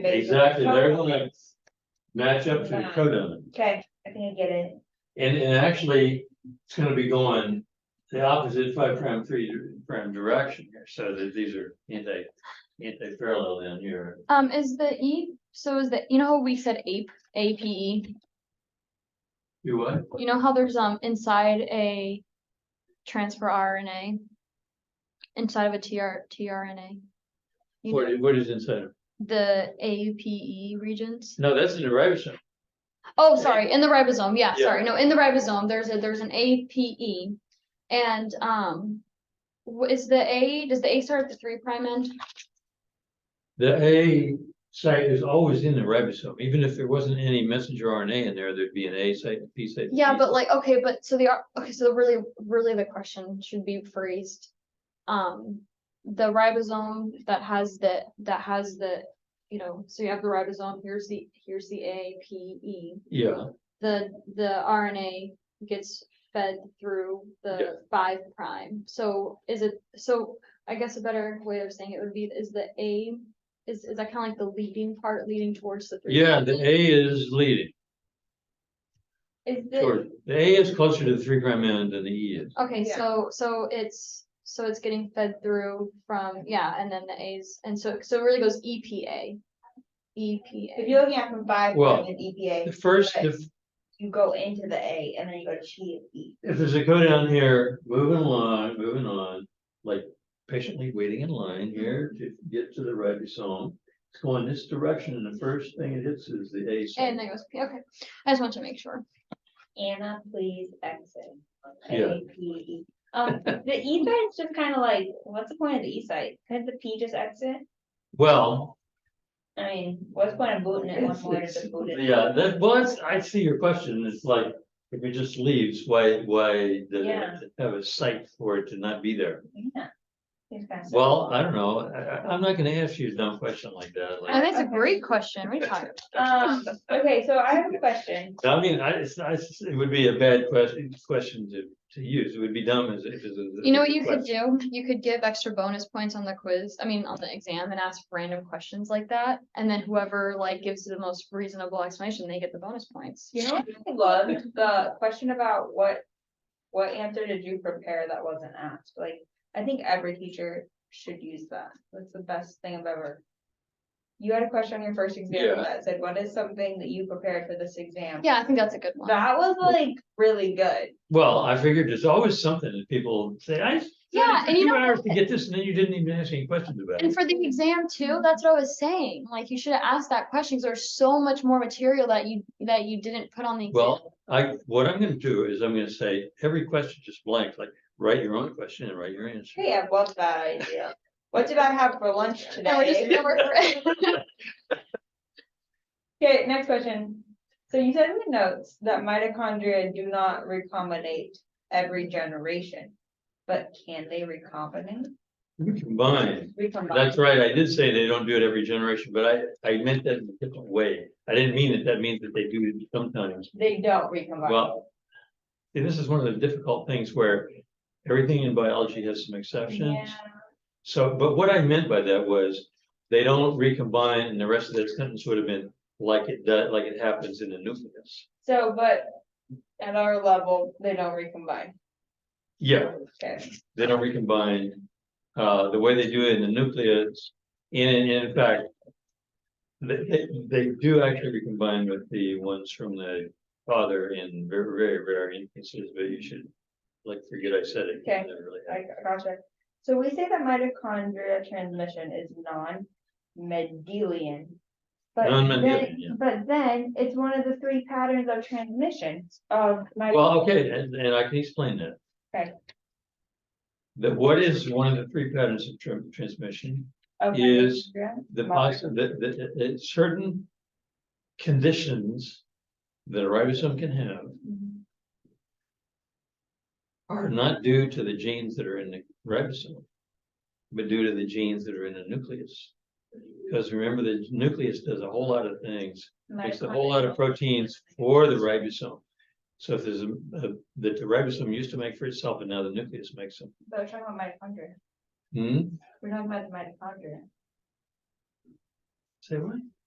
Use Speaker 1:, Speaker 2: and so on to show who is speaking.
Speaker 1: they-
Speaker 2: Exactly, they're gonna match up to the codon.
Speaker 1: Okay, I think I get it.
Speaker 2: And, and actually, it's gonna be going the opposite five prime three prime direction here, so that these are anti, anti-parallel down here.
Speaker 3: Um, is the E, so is the, you know how we said ape, A P
Speaker 2: Do what?
Speaker 3: E? You know how there's um inside a transfer RNA? Inside of a TR, tRNA? You
Speaker 2: What,
Speaker 3: know,
Speaker 2: i- what is inside? of-
Speaker 3: The APE regions?
Speaker 2: No, that's in the ribosome.
Speaker 3: Oh, sorry, in the ribosome, yeah,
Speaker 2: Yeah.
Speaker 3: sorry, no, in the ribosome, there's a, there's an APE. And um, wh- is the A, does the A start at the three prime end?
Speaker 2: The A site is always in the ribosome, even if there wasn't any messenger RNA in there, there'd be an A site, and P site. and
Speaker 3: Yeah,
Speaker 2: G
Speaker 3: but
Speaker 2: site.
Speaker 3: like, okay, but so the, ar- okay, so really, really the question should be phrased. Um, the ribosome that has the, that has the, you know, so you have the ribosome, here's the, here's the A, P, E.
Speaker 2: Yeah,
Speaker 3: The, the RNA gets fed through
Speaker 2: Yeah.
Speaker 3: the five prime, so is it, so I guess a better way of saying it would be, is the A, is, is that kind of like the leading part leading towards the? three
Speaker 2: yeah,
Speaker 3: prime
Speaker 2: the
Speaker 3: end?
Speaker 2: A is leading,
Speaker 3: Is the-
Speaker 2: sure, the A is closer to the three prime end than the E is.
Speaker 3: Okay,
Speaker 1: Yeah.
Speaker 3: so, so it's, so it's getting fed through from, yeah, and then the A's, and so, so it really goes E EPA. E
Speaker 1: If you're
Speaker 3: EPA.
Speaker 1: looking at from five, E
Speaker 2: Well,
Speaker 1: prime and EPA,
Speaker 2: The first,
Speaker 1: Right.
Speaker 2: if,
Speaker 1: you go into the A and then you go to T and E.
Speaker 2: if there's a code down here, moving along, moving on, like patiently waiting in line here to get to the ribosome. It's going this direction and the first thing it hits is the A
Speaker 3: And
Speaker 2: site.
Speaker 3: then it goes, P. okay, I just want to make sure.
Speaker 1: Anna, please exit.
Speaker 2: Yeah.
Speaker 1: APE. Um, the E site is just kind of like, what's the point of the E site? Could the P just exit?
Speaker 2: Well,
Speaker 1: I mean, what's the point of booting it one
Speaker 2: it's-
Speaker 1: more to
Speaker 2: it's-
Speaker 1: just boot it?
Speaker 2: yeah, that, well, it's- I see your question. It's like, if it just leaves, why, why does
Speaker 1: Yeah.
Speaker 2: it have a site for it to not be there?
Speaker 1: Yeah. Seems kinda silly.
Speaker 2: Well, I don't know. I, I, I'm not gonna ask you a dumb question like that.
Speaker 3: I
Speaker 2: Like,
Speaker 3: think it's a
Speaker 1: Okay.
Speaker 3: great question, what are you talking about?
Speaker 1: Um, okay, so I have a question.
Speaker 2: I mean, I, it's, not- it's- it would be a bad question, question to, to use. It would be dumb as if it's a.
Speaker 3: You know what you could do? You could give extra bonus points on the quiz, I mean, on the exam and ask random questions like that. And then whoever like gives the most reasonable explanation, they get the bonus points.
Speaker 1: You know, what I loved the question about what, what answer did you prepare that wasn't asked? Like, I think every teacher should use that. That's the best thing I've ever. You had a question on your first exam
Speaker 2: Yeah.
Speaker 1: that said, what is something that you prepared for this exam?
Speaker 3: Yeah, I think that's a good one.
Speaker 1: That was like really good.
Speaker 2: Well, I figured there's always something that people say, I. spent
Speaker 3: Yeah, and you
Speaker 2: two
Speaker 3: know
Speaker 2: Hours to get this, and then you didn't even ask any questions about
Speaker 3: And
Speaker 2: it.
Speaker 3: for the exam too, that's what I was saying, like you should have asked that question, 'cause there's so much more material that you, that you didn't put on the exam.
Speaker 2: Well, I, what I'm gonna do is I'm gonna say every question just blank, like write your own question and write your answer.
Speaker 1: Hey, I love that idea. What did I have for lunch
Speaker 3: And we just
Speaker 1: today?
Speaker 3: never correct-
Speaker 1: Okay, next question. So you said in the notes that mitochondria do not recombinate every generation, but can they recombinate?
Speaker 2: We Combine.
Speaker 1: Recombine.
Speaker 2: That's right. I did say they don't do it every generation, but I, I meant that in a different way. I didn't mean that. That means that they do it sometimes.
Speaker 1: They don't recombine.
Speaker 2: Well, see, this is one of the difficult things where everything in biology has some exceptions.
Speaker 1: Yeah.
Speaker 2: So, but what I meant by that was, they don't recombine, and the rest of that sentence would have been like it, does, like it happens in the nucleus.
Speaker 1: So, but at our level, they don't recombine.
Speaker 2: Yeah,
Speaker 1: Okay.
Speaker 2: they don't recombine, uh, the way they do it in the nucleus, and in, in fact. They, they, they do actually recombine with the ones from the father in very, very rare instances, but you should. Like, forget I said it. 'cause
Speaker 1: Okay.
Speaker 2: it never really happened.
Speaker 1: I gotcha. So we say that mitochondria transmission is non-medelian. but then-
Speaker 2: Non-Mendelian, yeah.
Speaker 1: But then it's one of the three patterns of transmission of my.
Speaker 2: Well, okay, and, and I can explain that.
Speaker 1: Okay.
Speaker 2: That what is one of the three patterns of tran- transmission?
Speaker 1: of
Speaker 2: is
Speaker 1: mitochondria.
Speaker 2: The
Speaker 1: Well-
Speaker 2: possi- the, the, the- the certain conditions that a ribosome can have
Speaker 1: Mhm.
Speaker 2: are not due to the genes that are in the ribosome, but due to the genes that are in the nucleus. Because remember, the nucleus does a whole lot of things makes a whole lot of
Speaker 1: Mitochondria.
Speaker 2: proteins for the ribosome. So if there's a, a- that the ribosome used to make for itself and now the nucleus makes them.
Speaker 1: But we're talking about mitochondria.
Speaker 2: Hmm,
Speaker 1: We're talking about the mitochondria.
Speaker 2: say what?